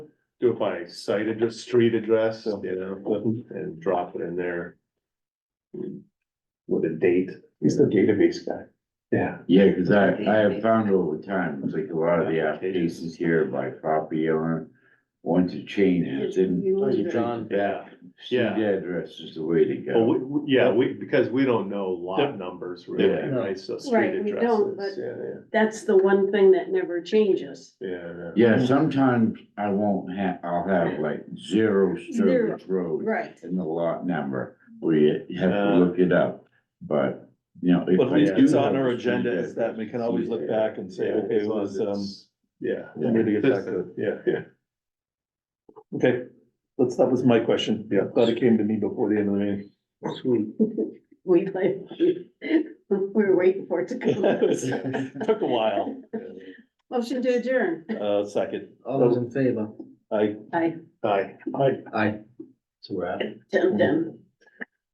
do it by site address, street address, you know, and drop it in there. With a date. He's the database guy. Yeah. Yeah, cause I, I have found over time, it's like a lot of the applications here by property owner. Want to change it, then. You lose it. John. Yeah. Street Yeah. address is the way to Oh. Well, go. we, we- yeah, we, because we don't know lot numbers really, Yeah. right, so street Right, we don't, addresses, yeah, That's the one thing that never changes. yeah, yeah, yeah. Yeah, sometimes I won't have, I'll have like zero Zero, Sturbridge Road. right. And the lot number, where you have to look it up, but, you know. if But at I least do it's have on a our street agenda, is that we can always look back and say, Yeah, okay, as it long was, as um, it's- Yeah. we need to get back to it. Yeah, yeah. okay, that's, that was my question. Yeah. Glad it came to me before the end of the meeting. We, like, we're waiting for it to come. Took a while, Motion to adjourn. uh, second, All those in favor? I, I, Hi. Aye. So we're out. dum dum.